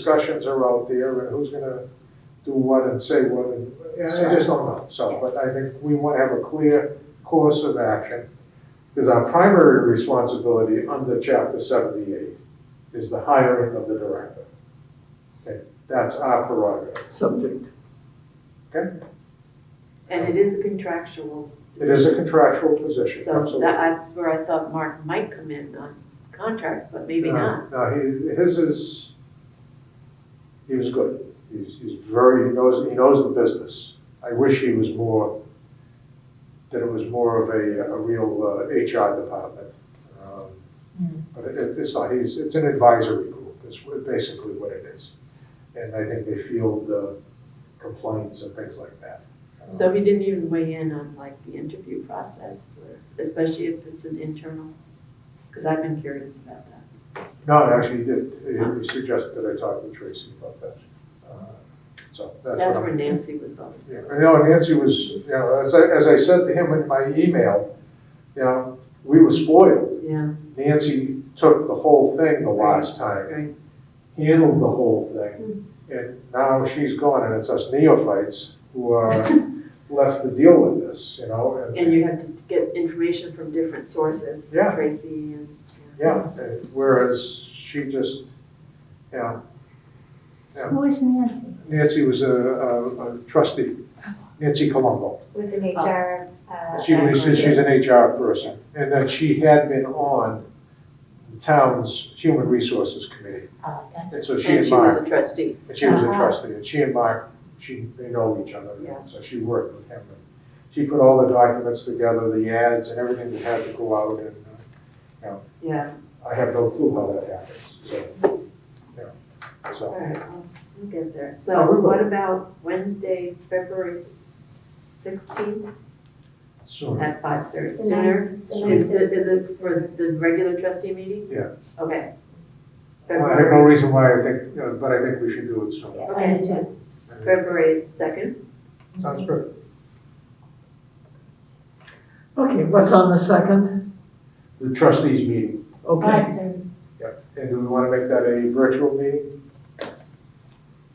discussions are out there and who's gonna do what and say what, and I just don't know. So, but I think we wanna have a clear course of action, because our primary responsibility under chapter seventy-eight is the hiring of the director. Okay, that's our prerogative, subject. okay? And it is a contractual. It is a contractual position, So absolutely. that- that's where I thought Mark might come in on contracts, but maybe No, not. No, he, his is, he was good. He's, he's very, he knows, he knows the business. I wish he was more, that it was more of a, a real uh, HR department. Um, Hmm. But it- it, it's not, he's, it's an advisory group, is wha- basically what it is. And I think they field uh, complaints and things like that. Um, So he didn't even weigh in on like the interview process, or- especially if it's an internal, because I've been curious about that. Um, No, actually, he did, He- he suggested that I talk with Tracy about that. Uh, So that's what That's I'm- where Nancy was always. Yeah, I know Nancy was, you know, as I, as I said to him in my email, you know, we were spoiled. Yeah, Nancy took the whole thing the last time, right. handled the whole thing. And now she's gone and it's us neophytes who are left to deal with this, you know? And you have to get information from different sources, Yeah. Tracy and. Yeah, and whereas she just, you know, Who is Nancy? Nancy was a, a a trustee, Nancy Colombo. With an HR. uh, She was, she's background. an HR person, and that she had been on the town's Human Resources Committee. Oh, that's- And so she And and she was a Mark, trustee. and she was a Uh-huh. trustee, and she and Mark, she, they know each other, and Yeah. so she worked with him. and She put all the documents together, the ads and everything that had to go out, and uh, Yeah, I have no clue how that happens, so, yeah, all so. right, well, we'll get there. Oh, So we will. what about Wednesday, February sixteenth? Soon, At five thirty, The sooner, the is, ninth thi- is- is this for the regular trustee meeting? Yeah. Okay. I have no February, reason why I think, uh, but I think we should do it soon. Yeah, I do too. February second, Sounds good. Okay, what's on the second? The trustees meeting. Okay, Five thirty. And do we want to make that a virtual meeting?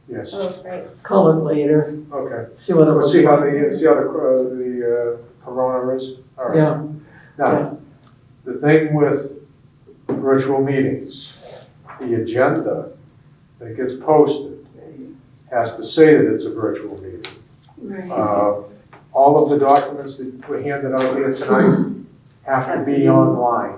Yes, Oh, right. call it later, okay. see what it Let's was. see how the, see how the, uh, the uh, corona is. All right. Yeah, Now, the thing with virtual meetings, the agenda that gets posted has to say that it's a virtual meeting. Uh, All of the documents that were handed out here tonight have to be online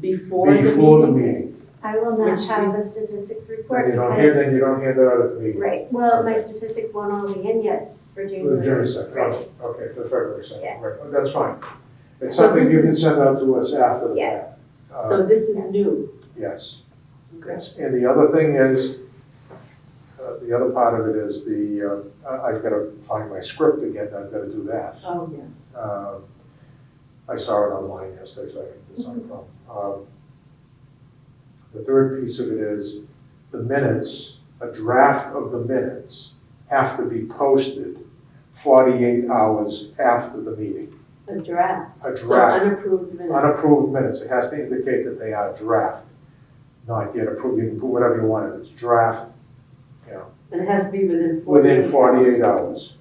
before the before the meeting. meeting. I will not Which have the statistics report. Then you don't hand, because- then you don't hand that out at the meeting. Right, well, my statistics won't all be in yet for For the January January. second, Right. oh, okay, for February second, Yeah. right, Oh, that's fine. It's So something this you can is- send out to us after the Yeah. fact. Uh, So this is new. Yes, yes, and the other thing is, uh, the other part of it is the, uh, I- I've got to find my script again, I've got to do that. Oh, yeah. Um, I saw it online yesterday, so I think it's not Mm-hmm. a problem. Um, The third piece of it is the minutes, a draft of the minutes have to be posted forty-eight hours after the meeting. A draft, A so draft, unapproved minutes. unapproved minutes, it has to indicate that they are draft, not yet approved, you can put whatever you want, in. it's draft, you know, And it has to be within forty. within forty-eight hours.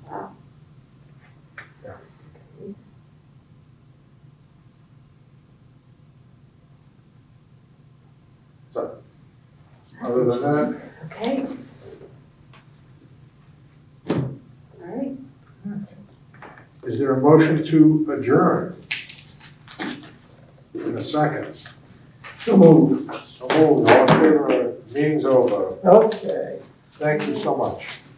So, That's other than that, Okay. All right, Is there a motion to adjourn? In a second. so moved. So moved, all in favor, meeting's over. Okay. Thank you so much.